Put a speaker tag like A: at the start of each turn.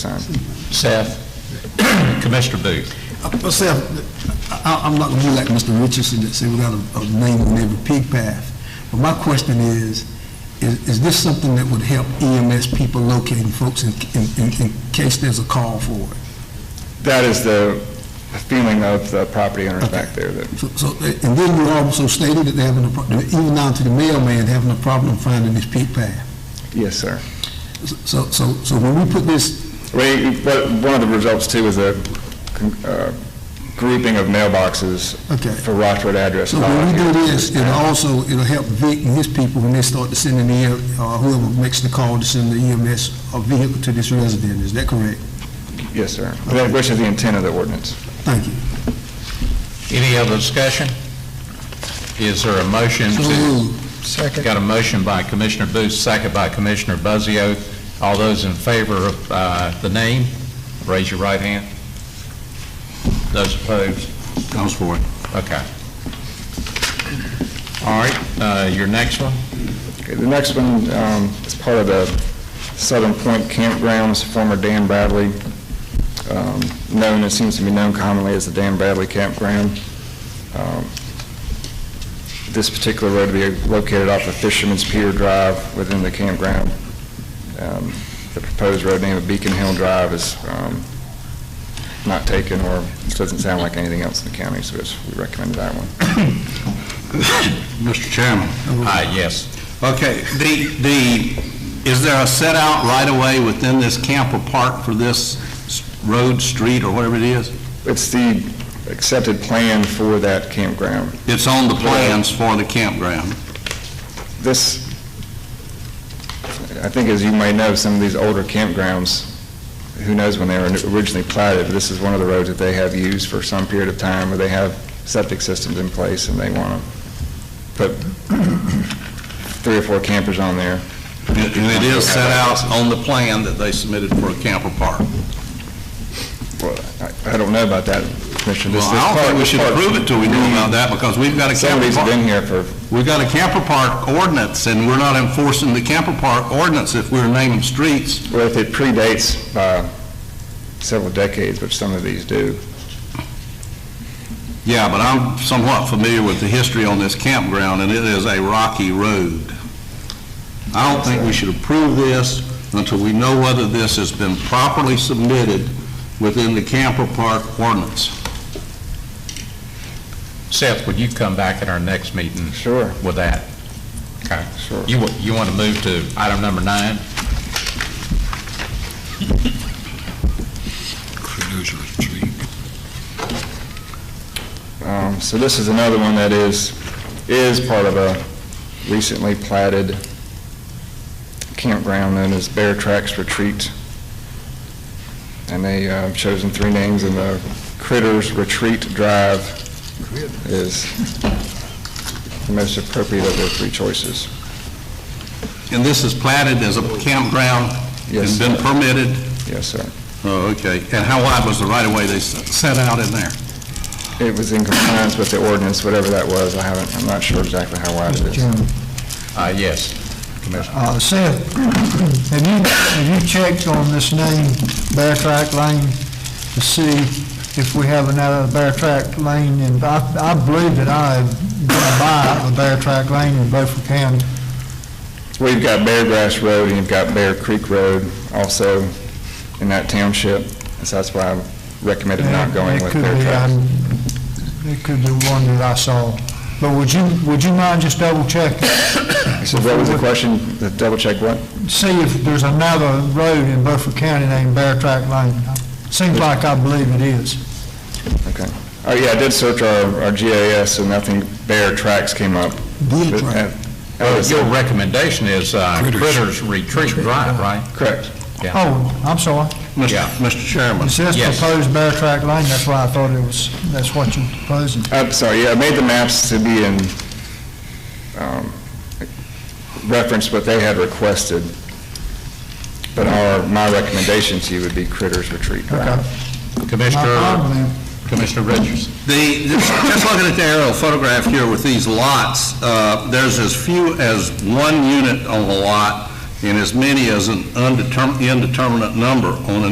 A: time.
B: Seth. Commissioner Booth.
C: Myself, I, I'm not gonna be like Mr. Richardson that said we got a, a name on every pig path. But my question is, is, is this something that would help EMS people locating folks in, in, in- in case there's a call for it?
A: That is the feeling of the property owners back there, that
C: So, so, and then you also stated that they're having a, pro- even down to the mailman, having a problem finding this pig path.
A: Yes, sir.
C: So, so, so when we put this,
A: We, but one of the results too is a con- uh, grouping of mailboxes
C: Okay.
A: for Rockford address.
C: so when we do this, it'll also, it'll help Vic and his people when they start to send in the, uh, whoever makes the call to send the EMS a vehicle to this resident, is that correct?
A: Yes, sir. That- Which is the intent of the ordinance.
C: Thank you.
B: Any other discussion? Is there a motion
C: So
B: to?
C: moved.
B: Second. Got a motion by Commissioner Booth, second by Commissioner Buzzio. All those in favor of uh, the name, raise your right hand. Those opposed? Those for it. Okay. All right, uh, your next one?
A: Okay, The next one um, is part of the Southern Point Campgrounds, former Dan Bradley, um, known, it seems to be known commonly as the Dan Bradley Campground. Um, This particular road will be located off of Fisherman's Pier Drive within the campground. Um, The proposed road name of Beacon Hill Drive is um, not taken, or doesn't sound like anything else in the county, so it's- we recommend that one.
D: Mr. Chairman.
B: Aye, Ah, yes.
D: Okay, the, the, is there a set out right away within this camp or park for this s- road, street, or whatever it is?
A: It's the accepted plan for that campground.
D: It's on the plans for the campground.
A: This, I think as you may know, some of these older campgrounds, who knows when they were originally platted, but this is one of the roads that they have used for some period of time, where they have septic systems in place and they want to put three or four campers on there.
D: And and it is set out on the plan that they submitted for a camp or park.
A: Well, I- I don't know about that, Commissioner. This- this
D: Well, I don't
A: part-
D: think we
A: this
D: should
A: part-
D: approve it till we know about that, because we've got a camper
A: Somebody's been
D: park,
A: here for,
D: we've got a camper park ordinance, and we're not enforcing the camper park ordinance if we're naming streets.
A: well, if it predates by several decades, which some of these do,
D: Yeah, but I'm somewhat familiar with the history on this campground, and it is a rocky road. I don't think we should approve this until we know whether this has been properly submitted within the camper park ordinance.
B: Seth, would you come back at our next meeting
A: sure,
B: with that? Okay.
A: sure.
B: You, wa- you want to move to item number nine?
A: Um, So this is another one that is, is part of a recently platted campground known as Bear Tracks Retreat. And they uh, have chosen three names, and the Critters Retreat Drive is the most appropriate of their three choices.
D: And this is platted as a campground
A: Yes.
D: and been permitted?
A: Yes, sir.
D: Oh, okay. And how wide was the right-of-way they s- set out in there?
A: It was in compliance with the ordinance, whatever that was. I haven't, I'm not sure exactly how wide it
E: Mr.
A: is.
E: Chairman,
B: Uh, yes, Commissioner.
E: uh, Seth, have you, have you checked on this name, Bear Track Lane, to see if we have another Bear Track Lane? And I, I believe that I have been by the Bear Track Lane in Beaufort County.
A: We've got Bear Grass Road and you've got Bear Creek Road also in that township, so that's why I recommended not going
E: It
A: with
E: could
A: Bear
E: be,
A: Tracks.
E: um, It could be one that I saw. But would you, would you mind just double checking?
A: So what was the question, The double check what?
E: see if there's another road in Beaufort County named Bear Track Lane. Seems like I believe it is.
A: Okay. Oh, yeah, I did search our, our GIS and nothing, Bear Tracks came up.
C: Beer
A: But,
C: track.
A: uh, that
B: Well,
A: was-
B: Your recommendation is uh, Critters Retreat Drive, right?
A: Correct.
E: Oh, I'm sorry.
D: Mr.
B: Yeah.
D: Mr. Chairman?
E: It says
B: Yes.
E: proposed Bear Track Lane, that's why I thought it was, that's what you're proposing.
A: I'm Uh, sorry, yeah, I made the maps to be in, um, reference what they had requested, but our, my recommendation to you would be Critters Retreat Drive.
E: Okay. My
B: Commissioner,
E: problem then.
B: Commissioner Richardson.
D: The, just looking at the aerial photograph here with these lots, uh, there's as few as one unit on a lot and as many as an undetermined, indeterminate number on an